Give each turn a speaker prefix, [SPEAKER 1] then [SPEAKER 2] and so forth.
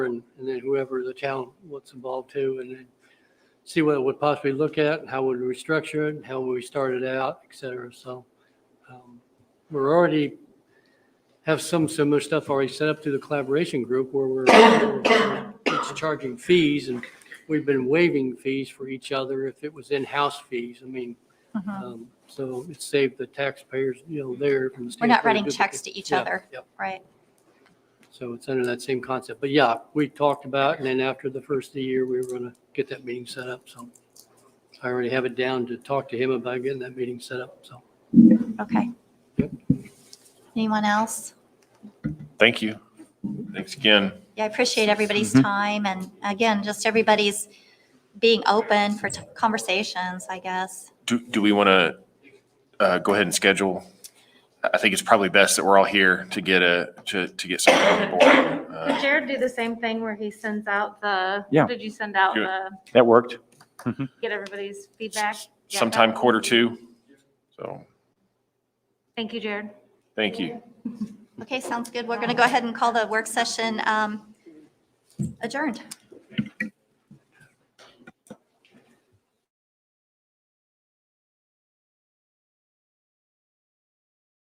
[SPEAKER 1] whoever the town wants involved too, and then see what it would possibly look at, how would we structure it, how would we start it out, et cetera. So um, we're already, have some similar stuff already set up through the collaboration group where we're, it's charging fees and we've been waiving fees for each other if it was in-house fees. I mean,
[SPEAKER 2] Mhm.
[SPEAKER 1] um, so it saved the taxpayers, you know, there. from the
[SPEAKER 2] We're not
[SPEAKER 1] standpoint of
[SPEAKER 2] writing
[SPEAKER 1] duplicate-
[SPEAKER 2] checks to each
[SPEAKER 1] Yeah,
[SPEAKER 2] other,
[SPEAKER 1] yeah.
[SPEAKER 2] right?
[SPEAKER 1] So it's under that same concept. But yeah, we talked about, and then after the first of the year, we were going to get that meeting set up. So I already have it down to talk to him about getting that meeting set up. So
[SPEAKER 2] Okay.
[SPEAKER 1] Yep.
[SPEAKER 2] Anyone else?
[SPEAKER 3] Thank you. Thanks again.
[SPEAKER 2] Yeah, I appreciate everybody's
[SPEAKER 3] Mhm.
[SPEAKER 2] time and again, just everybody's being open for t- conversations, I guess.
[SPEAKER 3] Do, do we want to go ahead and schedule? I I think it's probably best that we're all here to get a, to, to get something on the board.
[SPEAKER 4] Did
[SPEAKER 3] Uh,
[SPEAKER 4] Jared do the same thing where he sends out the?
[SPEAKER 5] Yeah.
[SPEAKER 4] Did you send out
[SPEAKER 3] Good.
[SPEAKER 4] the,
[SPEAKER 5] That worked. Mm-hmm.
[SPEAKER 4] get everybody's feedback? Yeah.
[SPEAKER 3] Sometime quarter two. So,
[SPEAKER 4] Thank you, Jared.
[SPEAKER 3] thank you.
[SPEAKER 2] Okay, sounds good. We're going to go ahead and call the work session um, adjourned.